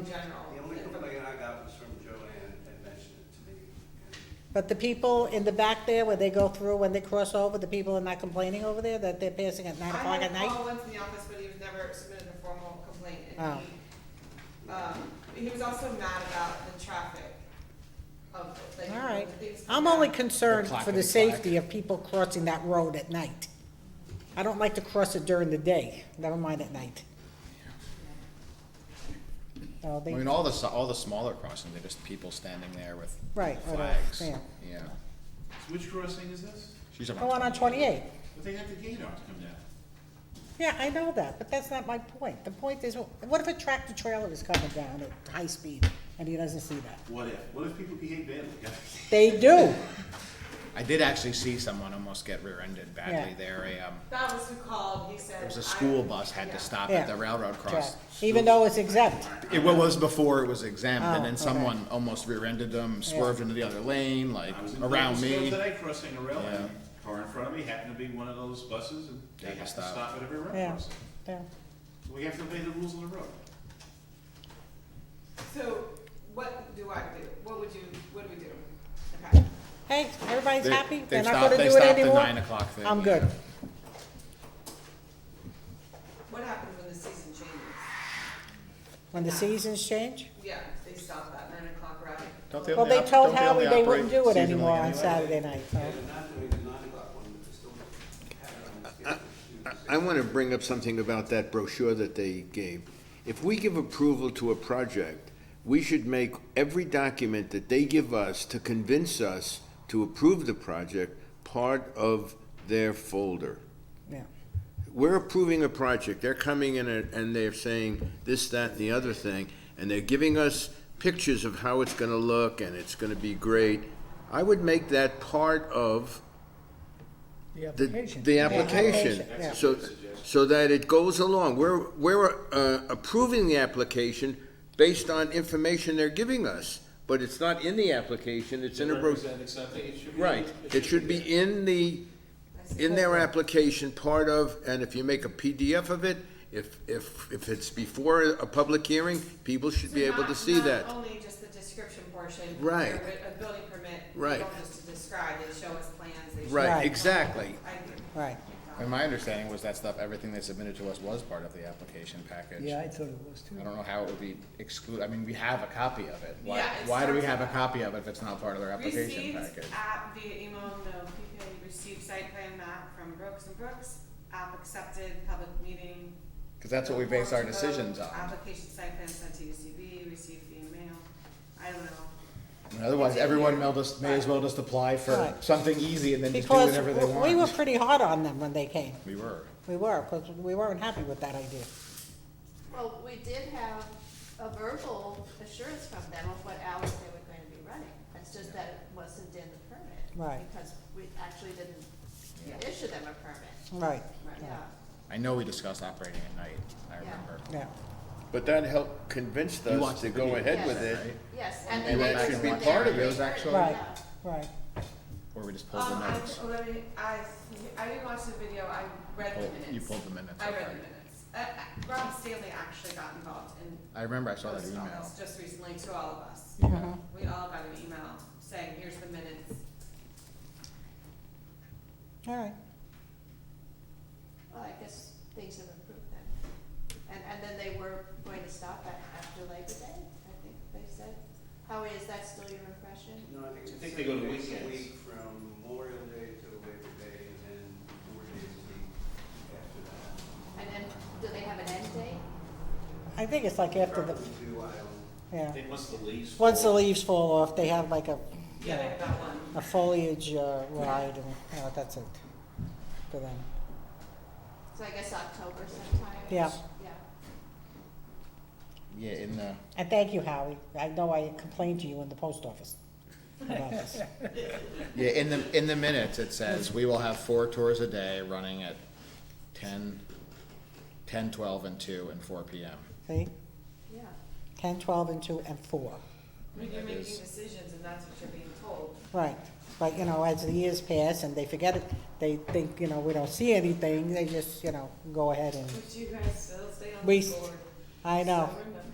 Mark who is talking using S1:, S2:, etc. S1: in general.
S2: The only complaint I got was from Joanne that mentioned it to me. and
S3: But the people in the back there, where they go through, when they cross over, the people are not complaining over there, that they're passing at nine
S1: I
S3: o'clock at
S1: had a
S3: night?
S1: call once in the office, but he was never submitted a formal complaint, and
S3: Oh.
S1: he, um, he was also mad about the traffic of, like,
S3: All
S1: when
S3: right.
S1: things come
S3: I'm only
S1: down.
S3: concerned
S4: The clock
S3: for
S4: of
S3: the
S4: the clock.
S3: safety of people crossing that road at night. I don't like to cross it during the day, never mind at night. Oh,
S4: I
S3: they-
S4: mean, all the, s- all the smaller crossings, they're just people standing there with
S3: Right, oh, or the-
S4: flags.
S3: yeah.
S4: Yeah.
S5: Which crossing is this?
S4: She's on
S3: Go on on twenty-eight.
S5: But they have the gate on to come down.
S3: Yeah, I know that, but that's not my point. The point is, what if a tractor trailer is coming down at high speed and he doesn't see that?
S5: What if, what if people behave badly, guys?
S3: They do.
S4: I did actually see someone almost get rear-ended badly
S3: Yeah.
S4: there. A, um,
S1: That was who called, he said.
S4: it was
S1: "I-
S4: a school bus had
S1: Yeah.
S4: to stop
S3: Yeah.
S4: at the railroad cross.
S3: Even though it's exempt.
S4: It wa- was before it was exempt,
S3: Oh,
S4: and then
S3: okay.
S4: someone almost rear-ended them, swerved into the other lane, like,
S5: I was in
S4: around
S5: Bakersfield
S4: me.
S5: Today crossing a rail,
S4: Yeah.
S5: and car in front of me happened to be one of those buses and they
S4: Had to
S5: have to
S4: stop.
S5: stop at every rail
S3: Yeah.
S5: crossing.
S3: Yeah.
S5: We have to obey the rules of the road.
S1: So, what do I do? What would you, what do we do? Okay,
S3: Hey, everybody's
S4: They-
S3: happy?
S4: they
S3: They're not
S4: stopped-
S3: gonna
S4: they
S3: do it
S4: stopped the
S3: anymore?
S4: nine o'clock thing,
S3: I'm good.
S4: yeah.
S1: what happens when the season changes?
S3: When the seasons change?
S1: Yeah, they stop at nine o'clock, right?
S4: Don't they
S3: Well,
S4: only
S3: they
S4: op-
S3: told
S4: don't they
S3: Howie
S4: only
S3: they
S4: operate
S3: wouldn't do it
S4: seasonally
S3: anymore on
S4: anyway?
S3: Saturday night, so.
S2: Yeah, they're not doing the nine o'clock one, but they still have it on the schedule.
S6: I want to bring up something about that brochure that they gave. If we give approval to a project, we should make every document that they give us to convince us to approve the project part of their folder.
S3: Yeah.
S6: We're approving a project, they're coming in and and they're saying this, that, and the other thing, and they're giving us pictures of how it's gonna look and it's gonna be great. I would make that part of the, the application,
S3: Yeah.
S6: so, so that it goes along. We're, we're uh, approving the application based on information they're giving us, but it's not in the application, it's in a, bro-
S5: Representing something, it should be.
S6: right. It should
S5: there.
S6: be in the, in their application, part of, and if you make a PDF of it, if, if, if it's before a public hearing, people should
S1: So
S6: be able to
S1: not-
S6: see
S1: not
S6: that.
S1: Only just the description portion.
S6: Right.
S1: A building permit. they
S6: Right.
S1: don't just describe, they show us plans, they show.
S3: Right.
S6: Right, exactly.
S1: I agree.
S3: Right.
S4: And my understanding was that stuff, everything they submitted to us was part of the application package.
S7: Yeah, I thought it was too.
S4: I don't know how it would be excluded, I mean, we have a copy of it. Why,
S1: Yeah, it's
S4: why do we
S1: not-
S4: have a copy of it if it's not part of their application
S1: Received
S4: package?
S1: app via email, no PPA, E received site plan map from Brooks and Brooks, app accepted, public meeting.
S4: Because that's what we base our
S1: Vote,
S4: decisions on.
S1: Application site plan sent to UCB, received via mail, I don't know.
S4: And Otherwise, everyone may just, may as well just apply for
S3: Right.
S4: something easy and then just do
S3: Because
S4: whatever they
S3: w- we were
S4: want.
S3: pretty hard on them when they came.
S4: We were.
S3: We were, because we weren't happy with that idea.
S8: Well, we did have a verbal assurance from them of what hours they were going to be running. It's just that it wasn't in the permit.
S3: Right.
S8: Because we actually didn't issue them a permit.
S3: Right.
S8: Yeah.
S4: I know we discussed operating at night, I
S8: Yeah.
S4: remember.
S3: Yeah.
S6: But that helped convince
S4: You want
S6: us to
S4: the
S6: go
S4: video,
S6: ahead with
S8: yes.
S6: it.
S4: Right?
S8: Yes, and
S4: And
S8: then.
S4: that
S8: it
S4: should
S8: was
S4: be
S8: in
S4: part
S8: their
S4: of it, was
S8: return,
S4: actually-
S3: Right,
S8: yeah.
S3: right.
S4: Or we just pulled the notes.
S1: Um, I, let me, I, I didn't watch the video, I read the
S4: Pulled-
S1: minutes.
S4: You pulled the minutes.
S1: I read
S4: okay.
S1: the minutes. Uh, uh, Rob Stanley actually got involved in
S4: I remember I saw that
S1: posted on
S4: email.
S1: this just recently to all of us.
S3: Mm-hmm.
S4: Yeah.
S1: We all got an email saying, here's the minutes.
S3: All right.
S8: Well, I guess things have improved then. And, and then they were going to stop at, after Labor Day, I think they said. Howie, is that still your impression?
S2: No, I think
S5: I
S2: it's
S5: think they go
S2: seven
S5: to
S2: days a
S5: weekends.
S2: week from Memorial Day to Labor Day, and then four days a week after that.
S8: And then, do they have an end date?
S3: I think it's like after the,
S2: Probably do, I don't.
S3: yeah.
S5: They must the leaves.
S3: Once the
S5: fall.
S3: leaves fall off, they have like a, you
S1: Yeah,
S3: know,
S1: they got one.
S3: a foliage uh, ride and, you know, that's it for them.
S8: So I guess October sometime?
S3: Yeah.
S8: Yeah.
S4: Yeah, in the,
S3: And thank you, Howie. I know I complained to you in the post office about this.
S4: yeah, in the, in the minutes, it says, we will have four tours a day running at ten, ten, twelve, and two, and four PM.
S3: See?
S8: Yeah,
S3: Ten, twelve, and two, and four.
S1: When you're
S4: That
S1: making
S4: is-
S1: decisions and that's what you're being told.
S3: Right. But, you know, as the years pass and they forget it, they think, you know, we don't see anything, they just, you know, go ahead and,
S1: But you guys still stay on
S3: We-
S1: the board.
S3: I know.
S1: So remember.